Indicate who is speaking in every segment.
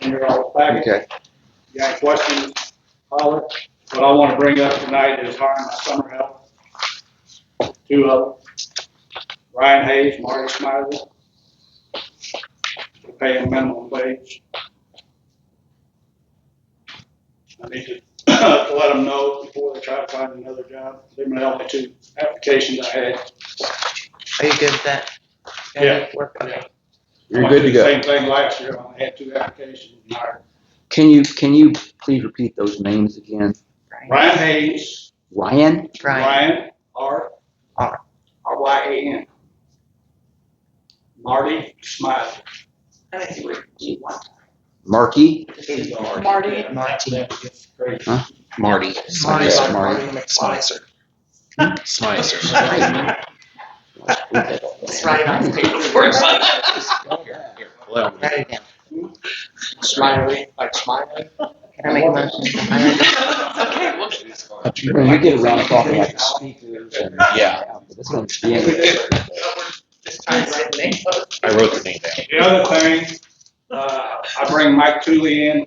Speaker 1: in your all packet.
Speaker 2: Okay,
Speaker 1: If you have questions, holler. What I want to bring up tonight is hiring my summer help. Two of them. Ryan Hayes, Marty Smiley. We're Paying minimum wage. I need to to let them know before they try to find another job. They're my only two applications I had.
Speaker 3: Are you good with that?
Speaker 1: Yeah.
Speaker 3: Work- okay.
Speaker 2: you're good to go.
Speaker 1: Same thing last year, I only had two applications. and hired.
Speaker 4: Can you, can you please repeat those names again?
Speaker 1: Ryan Hayes,
Speaker 4: Ryan?
Speaker 3: Ryan,
Speaker 1: Ryan, R.
Speaker 3: R.
Speaker 1: R Y A N. Marty Smiley.
Speaker 5: I think you would do one.
Speaker 4: Markey?
Speaker 5: Marty.
Speaker 3: Marty.
Speaker 1: Great.
Speaker 4: Marty.
Speaker 3: Marty, Marty
Speaker 4: Yeah, Marty.
Speaker 3: McSlicer.
Speaker 4: Slicer.
Speaker 3: It's right on the paper for us. Write it down. Smiley, like smiling. Can I make a motion? I-
Speaker 5: Okay, well,
Speaker 4: When you get around talking like speakers and.
Speaker 2: Yeah.
Speaker 4: This one's being-
Speaker 3: This time, right, Nick?
Speaker 2: I wrote the name down.
Speaker 1: The other thing, uh, I bring Mike Tooley in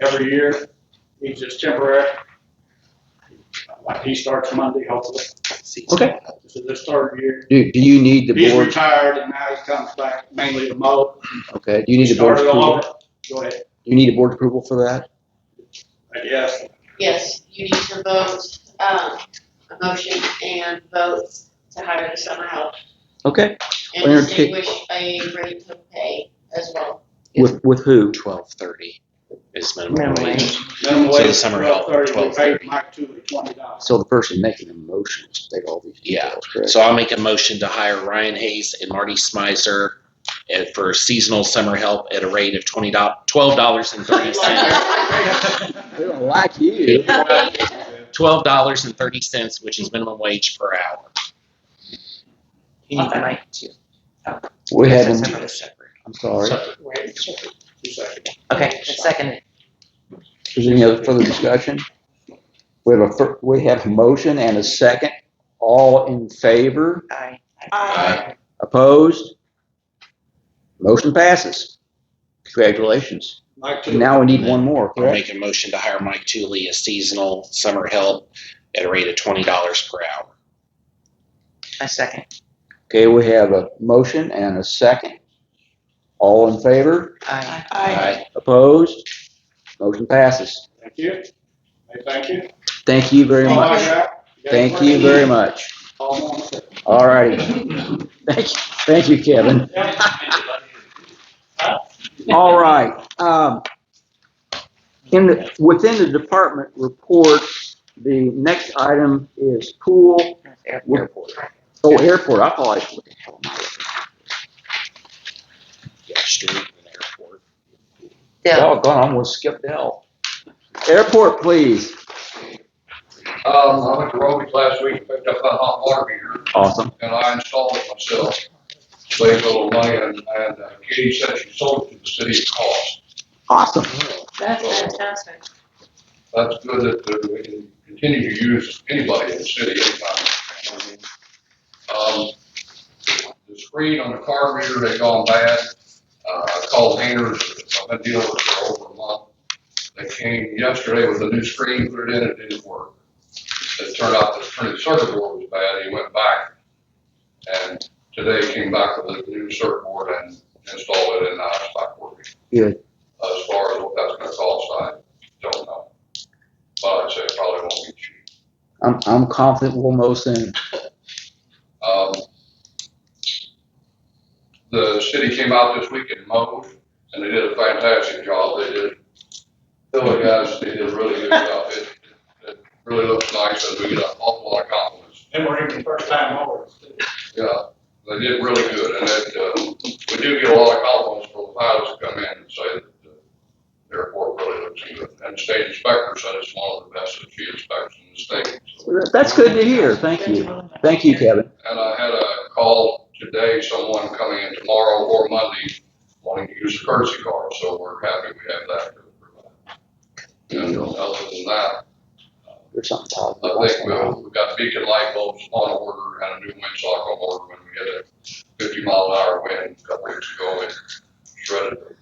Speaker 1: every year. He's just temporary. Like, He starts Monday, hopefully.
Speaker 4: Okay.
Speaker 1: This is his third year.
Speaker 4: Do, do you need the
Speaker 1: He's
Speaker 4: board,
Speaker 1: retired and now he comes back mainly to mow.
Speaker 4: okay, do you need the board's
Speaker 1: Started all
Speaker 4: approval?
Speaker 1: over. Go ahead.
Speaker 4: Do you need a board approval for that?
Speaker 1: I guess.
Speaker 5: yes, you need to vote, um, a motion and vote to hire the summer help
Speaker 4: Okay,
Speaker 5: and
Speaker 4: Well, you're-
Speaker 5: distinguish a rate of pay as well.
Speaker 4: with, with who?
Speaker 6: twelve thirty is minimum
Speaker 3: Minimum
Speaker 6: wage.
Speaker 3: wage.
Speaker 1: Minimum
Speaker 6: So the
Speaker 1: wage,
Speaker 6: summer
Speaker 1: twelve
Speaker 6: help,
Speaker 1: thirty, we paid
Speaker 6: 12.30.
Speaker 1: Mike Tooley twenty dollars.
Speaker 4: So the person making the motion, they got all these
Speaker 6: Yeah.
Speaker 4: details, correct?
Speaker 6: So I'll make a motion to hire Ryan Hayes and Marty Smizer and for seasonal summer help at a rate of twenty twelve dollars and thirty cents.
Speaker 4: They don't like you.
Speaker 6: Twelve dollars and thirty cents, which is minimum wage per hour.
Speaker 3: You need the mic too.
Speaker 4: We had, an-
Speaker 3: Separate, separate.
Speaker 4: I'm sorry,
Speaker 3: Okay, second.
Speaker 4: is there any other further discussion? We have a, fir- we have a motion and a second, all in favor,
Speaker 3: Aye.
Speaker 2: Uh,
Speaker 5: Aye.
Speaker 4: opposed? Motion passes. Congratulations.
Speaker 1: Mike Tooley.
Speaker 4: Now we need one more,
Speaker 6: I'll
Speaker 4: correct?
Speaker 6: make a motion to hire Mike Tooley as seasonal summer help at a rate of twenty dollars per hour.
Speaker 3: I second.
Speaker 4: Okay, we have a motion and a second. All in favor,
Speaker 3: Aye.
Speaker 6: Aye.
Speaker 4: opposed? Motion passes.
Speaker 1: Thank you. Hey, thank you.
Speaker 4: Thank you very
Speaker 1: All I
Speaker 4: much.
Speaker 1: got. got
Speaker 4: Thank
Speaker 1: any
Speaker 4: you
Speaker 1: questions?
Speaker 4: very much.
Speaker 1: All on the-
Speaker 4: All righty. Thank you, thank you, Kevin. All right, um, in, the- within the department report, the next item is pool,
Speaker 3: Air-
Speaker 4: We're-
Speaker 3: airport.
Speaker 4: oh, airport, I apologize.
Speaker 6: Yeah, street and airport.
Speaker 3: Dell.
Speaker 4: Doggone, I almost skipped Dell. Airport, please.
Speaker 7: Um, I went to Roby's last week, picked up that hot water heater,
Speaker 4: Awesome.
Speaker 7: and I installed it myself. Saved a little money, and, and uh, Katie said she sold it to the city at cost.
Speaker 4: Awesome.
Speaker 5: That's fantastic.
Speaker 7: That's good that uh, we can continue to use anybody in the city anytime. Um, the screen on the car reader, they gone bad. Uh, I called Hainers, I've been dealing with it for over a month. They came yesterday with a new screen, put it in, it didn't work. It turned out the printed circuit board was bad, he went back. And today came back with a new circuit board and installed it, and now it's back working.
Speaker 4: Good.
Speaker 7: As far as what that's gonna cost, I don't know. But I'd say it probably won't be cheap.
Speaker 4: I'm, I'm confident we'll know soon.
Speaker 7: Um, the city came out this week and mowed, and they did a fantastic job. They did, Philly guys, they did a really good job. It, it really looks nice, and we get an awful lot of compliments.
Speaker 1: They were even first time mowers. too.
Speaker 7: Yeah, they did really good, and it, uh, we do get a lot of compliments from the pilots that come in and say that the airport really looks good. And state inspector said it's one of the best that she inspects in the state. so.
Speaker 4: That's good to hear. Thank you. Thank you, Kevin.
Speaker 7: And I had a call today, someone coming in tomorrow or Monday wanting to use a courtesy car, so we're happy we have that. to provide. And other than that,
Speaker 4: There's something positive.
Speaker 7: I think we'll, we've got beacon light bulbs on order and a new windsock on order when we had a fifty mile an hour wind a couple weeks ago and shredded